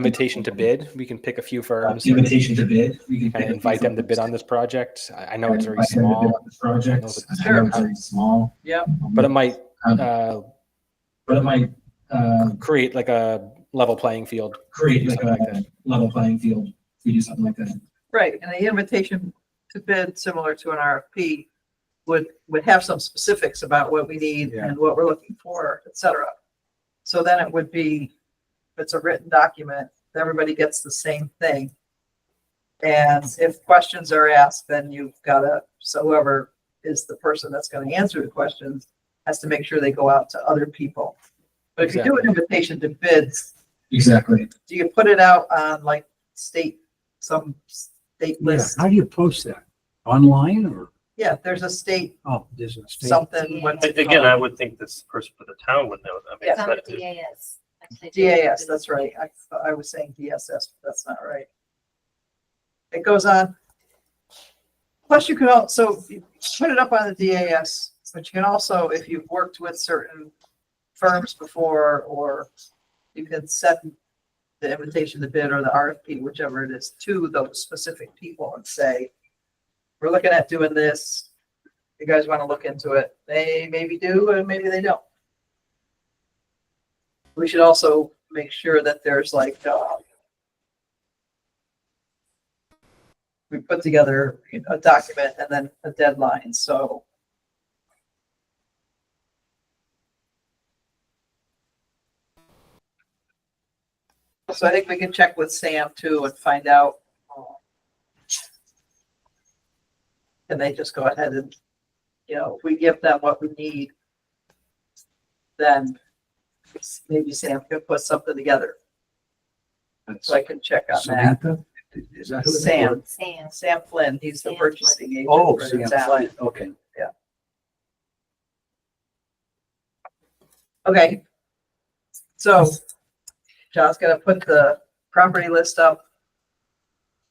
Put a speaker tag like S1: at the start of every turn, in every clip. S1: invitation to bid. We can pick a few
S2: Uh,
S1: firms
S2: Invitation to bid. We can
S1: and
S2: pick a
S1: invite
S2: few
S1: them to bid on this project. I I know it's very
S2: Invite them to bid
S1: small,
S2: on this Project.
S1: I know it's
S2: I know it's very small.
S3: Yeah.
S1: but it might
S2: Um,
S1: uh,
S2: But it might, uh,
S1: create like a level playing field.
S2: create like
S1: Something like
S2: a level playing field. if We do something like that.
S3: Right, and the invitation to bid, similar to an RFP, would, would have some specifics about what we need
S1: Yeah.
S3: and what we're looking for, et cetera. So then it would be, if it's a written document, everybody gets the same thing. And if questions are asked, then you've got to, so whoever is the person that's going to answer the questions has to make sure they go out to other people. But if you do an invitation to bids,
S2: Exactly.
S3: do you put it out on like state, some state
S4: Yeah,
S3: list?
S4: how do you post that? Online or,
S3: Yeah, there's a state
S4: oh, there's a state?
S3: something, what's
S5: But
S3: it
S5: Again, I
S3: called?
S5: would think this person for the town would know. I mean,
S3: Yeah.
S6: It's on the
S5: but if-
S6: DAS. actually.
S3: DAS, that's right. I, thought- I was saying DSS, but that's not right. It goes on. Plus you can also you put it up on the DAS, but you can also, if you've worked with certain firms before, or you can set the invitation to bid or the RFP, whichever it is, to those specific people and say, we're looking at doing this. You guys want to look into it? They maybe do and maybe they don't. We should also make sure that there's like, uh, we put together a document and then a deadline, so. So I think we can check with Sam too and find out. uh, Can they just go ahead and, you know, if we give them what we need, then maybe Sam can put something together, so I can check on that.
S4: Samantha? Is that who? it is?
S3: Sam,
S6: Sam.
S3: Sam Flynn, he's the
S6: Sam
S3: purchasing agent.
S4: Oh,
S3: for
S4: Sam
S3: Sam.
S4: Flynn, okay.
S3: Okay. So John's gonna put the property list up.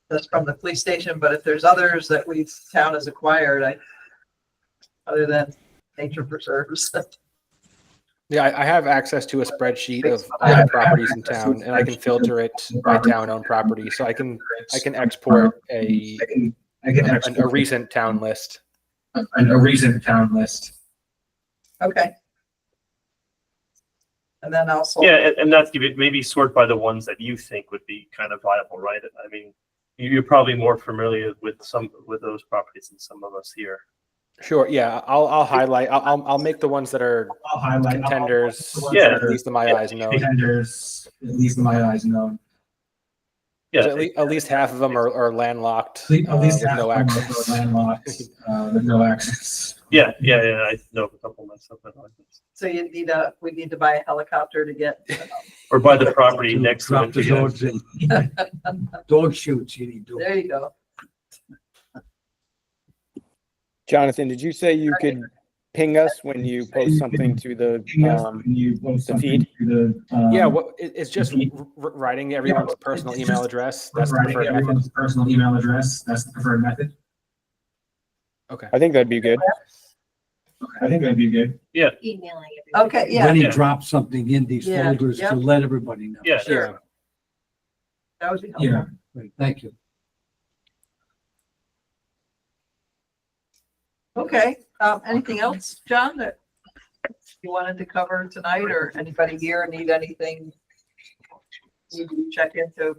S3: That's from the police station, but if there's others that we've, town has acquired, I, other than nature preserves.
S1: Yeah, I, I have access to a spreadsheet of
S2: I
S1: all the
S2: have
S1: properties in
S2: access to
S1: town, and I can
S2: spreadsheet
S1: filter it by town-owned property. So I can I can export a
S2: Um, I can, I can
S1: an- a
S2: export
S1: recent town list.
S2: a- a recent town list.
S3: Okay. And then also.
S5: Yeah, and, and that's give it- maybe sort by the ones that you think would be kind of viable, right? I mean, you- you're probably more familiar with some, with those properties than some of us here.
S1: Sure. Yeah, I'll I'll highlight. I'll I'll, I'll make the ones that are
S2: I'll highlight. I'll-
S1: contenders.
S2: I'll-
S5: Yeah.
S1: At least in my eyes, no.
S2: Contenders, at least in my eyes, no.
S5: Yeah,
S1: At, le- at least half of them are, are landlocked.
S2: At least
S1: uh, with
S2: half
S1: no
S2: of them are
S1: access.
S2: landlocked, uh, with no access.
S5: yeah, yeah, yeah. I know a couple myself that like this.
S3: So you need a, we need to buy a helicopter to get,
S5: Or by the property next to
S4: Drop
S5: it.
S4: the
S5: yeah.
S4: dogs in. Dog shoots, you need dogs.
S3: there you go.
S7: Jonathan, did you say you could ping us when you post something to the, um,
S2: You post
S7: the
S2: something to the. um,
S1: Yeah, what it, it's just
S2: Mhm.
S1: r- r- writing everyone's
S2: Yeah,
S1: personal
S2: it's
S1: email
S2: just
S1: address. That's the
S2: writing
S1: preferred method.
S2: everyone's Personal email address, that's the preferred method.
S1: Okay.
S7: I think that'd be good.
S2: I think that'd be good.
S6: Emailing. everybody.
S3: Okay, yeah,
S4: Then he
S5: Yeah.
S4: drops something in these
S3: Yeah,
S4: folders
S3: yeah.
S4: to let everybody know.
S5: Yeah.
S3: sure. that would be helpful.
S2: Yeah,
S4: Great, Thank you.
S3: Okay, um, anything else, John, that you wanted to cover tonight or anybody here need anything? You can check into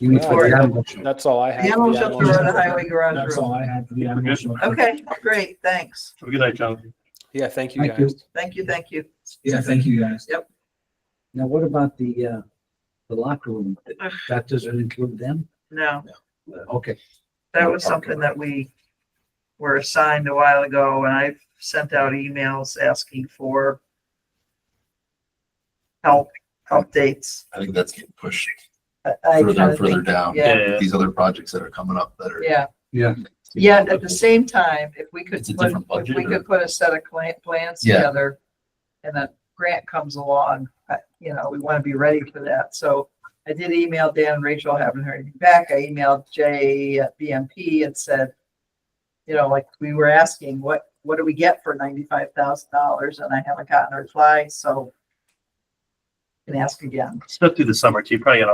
S4: You need to
S1: Yeah.
S4: handle it.
S1: That's all I
S3: the
S1: have.
S3: animal
S1: Yeah,
S3: shelter
S1: well,
S3: or the highway garage
S2: that's
S3: room.
S2: all I have for the animal shelter.
S3: Okay, great, thanks.
S5: Have a good night, Jonathan.
S1: Yeah, thank you
S4: Thank you.
S1: guys.
S3: Thank you, thank you.
S2: Yeah, thank you guys.
S4: Now, what about the, uh, the locker room? That doesn't include them?
S3: No,
S4: Okay.
S3: that was something that we were assigned a while ago and I've sent out emails asking for help, updates.
S8: I think that's getting pushed
S3: I- I
S8: further
S3: kinda
S8: and further
S3: think-
S8: down.
S3: Yeah.
S8: with These other projects that are coming up that are.
S3: Yeah,
S4: Yeah.
S3: Yet at the same time, if we could,
S8: It's a
S3: put-
S8: different
S3: if we
S8: budget,
S3: could
S8: or-
S3: put a set of clan, plans
S8: Yeah.
S3: together and that grant comes along, I- you know, we want to be ready for that. So I did email Dan, Rachel, haven't heard anything back. I emailed Jay at BMP and said, you know, like we were asking, what, what do we get for ninety-five thousand dollars? And I haven't gotten a reply, so and ask again.
S5: Stuff through the summer too, probably got a